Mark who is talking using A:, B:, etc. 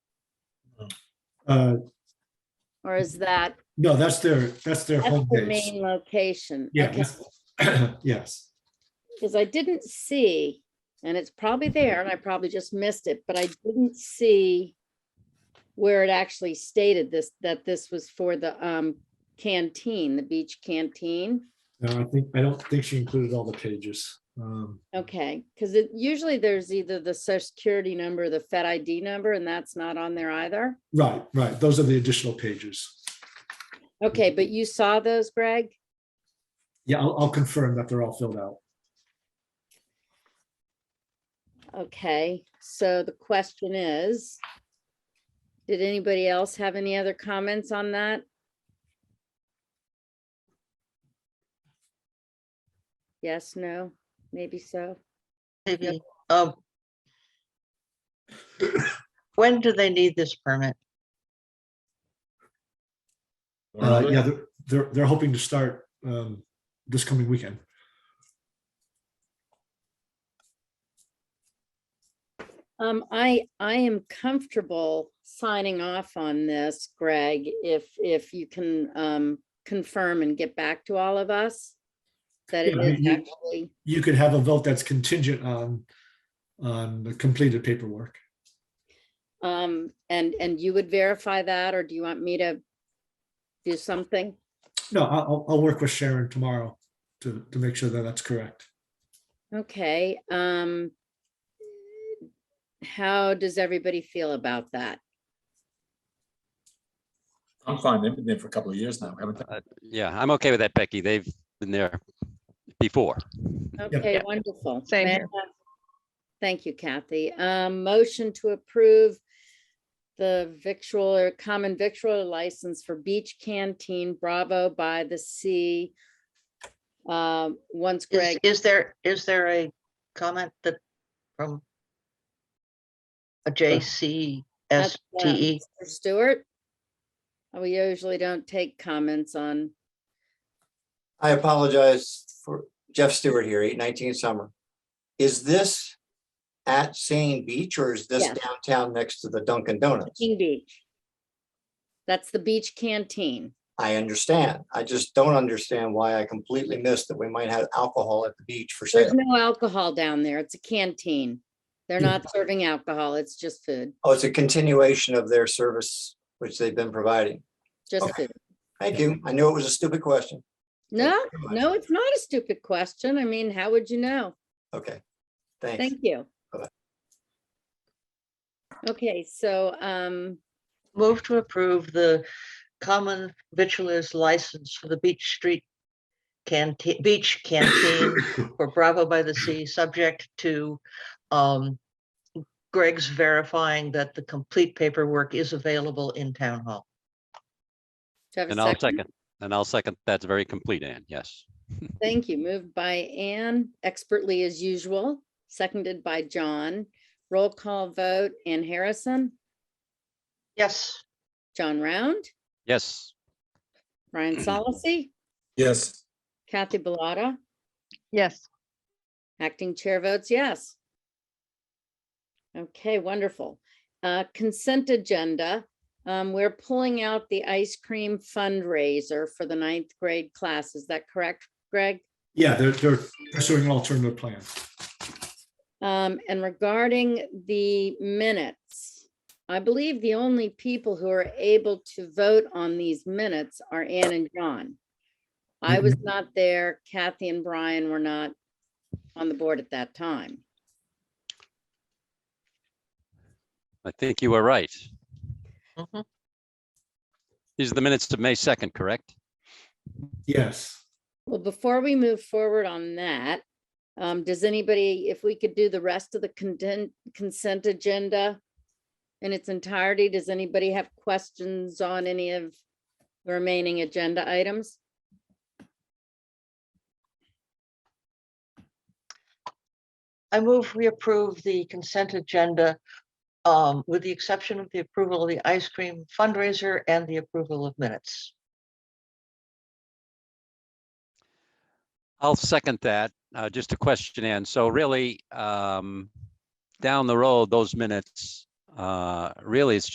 A: Uh,
B: Or is that,
A: no, that's their, that's their
B: that's
A: home
B: the
A: base.
B: main location?
A: Yeah, that's- yes.
B: Because I didn't see, and it's probably there, and I probably just missed it, but I didn't see where it actually stated this, that this was for the um canteen, the beach canteen.
A: No, Uh, I think, I don't think she included all the pages. Um,
B: Okay, because it, usually there's either the social security number, or the Fed ID number, and that's not on there either.
A: right, right. Those are the additional pages.
B: Okay, but you saw those, Greg?
A: Yeah, I'll, I'll confirm that they're all filled out.
B: Okay, so the question is, did anybody else have any other comments on that? Yes, no, maybe so.
C: Maybe, um. When do they need this permit?
A: Uh, yeah, they're, they're, they're hoping to start, um, this coming weekend.
B: Um, I, I am comfortable signing off on this, Greg, if, if you can, um, confirm and get back to all of us that it
A: Yeah, I
B: is
A: mean, you-
B: actually,
A: You could have a vote that's contingent on, on the completed paperwork.
B: um, and, and you would verify that, or do you want me to do something?
A: No, I'll, I'll- I'll work with Sharon tomorrow to, to make sure that that's correct.
B: Okay, um. How does everybody feel about that?
D: I'm fine. They've been there for a couple of years now, haven't they?
E: Uh, Yeah, I'm okay with that, Becky. They've been there before.
B: Okay,
C: Yeah.
B: wonderful.
C: Same here.
B: Fantastic. Thank you, Kathy. Um, motion to approve the victual or common victual license for Beach Canteen Bravo by the Sea. Um, once
C: Is,
B: Greg,
C: is there, is there a comment that from? A J C S
B: That's, uh,
C: T E?
B: Mr. Stewart. We usually don't take comments on,
F: I apologize for Jeff Stewart here, eight nineteen Summer. Is this at Sane Beach or is this
B: Yes.
F: downtown next to the Dunkin' Donuts?
B: King Beach. That's the Beach Canteen.
F: I understand. I just don't understand why I completely missed that we might have alcohol at the beach for
B: There's
F: sale.
B: no alcohol down there. It's a canteen. They're
A: Yeah.
B: not serving alcohol. It's just food,
F: Oh, it's a continuation of their service, which they've been providing.
B: just
F: Okay.
B: food.
F: Thank you. I knew it was a stupid question. Thank
B: No,
F: you very much.
B: no, it's not a stupid question. I mean, how would you know?
F: Okay, thanks.
B: Thank you.
F: Bye-bye.
B: Okay, so, um,
C: Move to approve the common vitulers license for the Beach Street canteen, beach canteen for Bravo by the Sea, subject to um Greg's verifying that the complete paperwork is available in town hall.
B: do I have a
E: And I'll
B: second?
E: second, and I'll second, that's very complete, Ann, yes.
B: Thank you. Moved by Anne, expertly as usual, seconded by John. Roll call vote, Ann Harrison,
C: Yes.
B: John Round,
E: Yes,
B: Ryan Solacey,
D: Yes,
B: Kathy Bellata.
C: Yes.
B: Acting chair votes yes. Okay, wonderful. Uh, Consent agenda. Um, We're pulling out the ice cream fundraiser for the ninth grade class. Is that correct, Greg?
A: Yeah, they're, they're pursuing an alternative plan.
B: Um, And regarding the minutes, I believe the only people who are able to vote on these minutes are Ann and John. I was not there. Kathy and Brian were not on the board at that time.
E: I think you were right.
B: Mm-hmm.
C: Mhm.
E: These are the minutes of May 2nd, correct?
A: Yes.
B: Well, before we move forward on that, um, does anybody, if we could do the rest of the content, consent agenda in its entirety, does anybody have questions on any of the remaining agenda items?
C: I move we approve the consent agenda um, with the exception of the approval of the ice cream fundraiser and the approval of minutes.
E: I'll second that. Uh, Just a question, Ann. So really, um, down the road, those minutes, uh, really, it's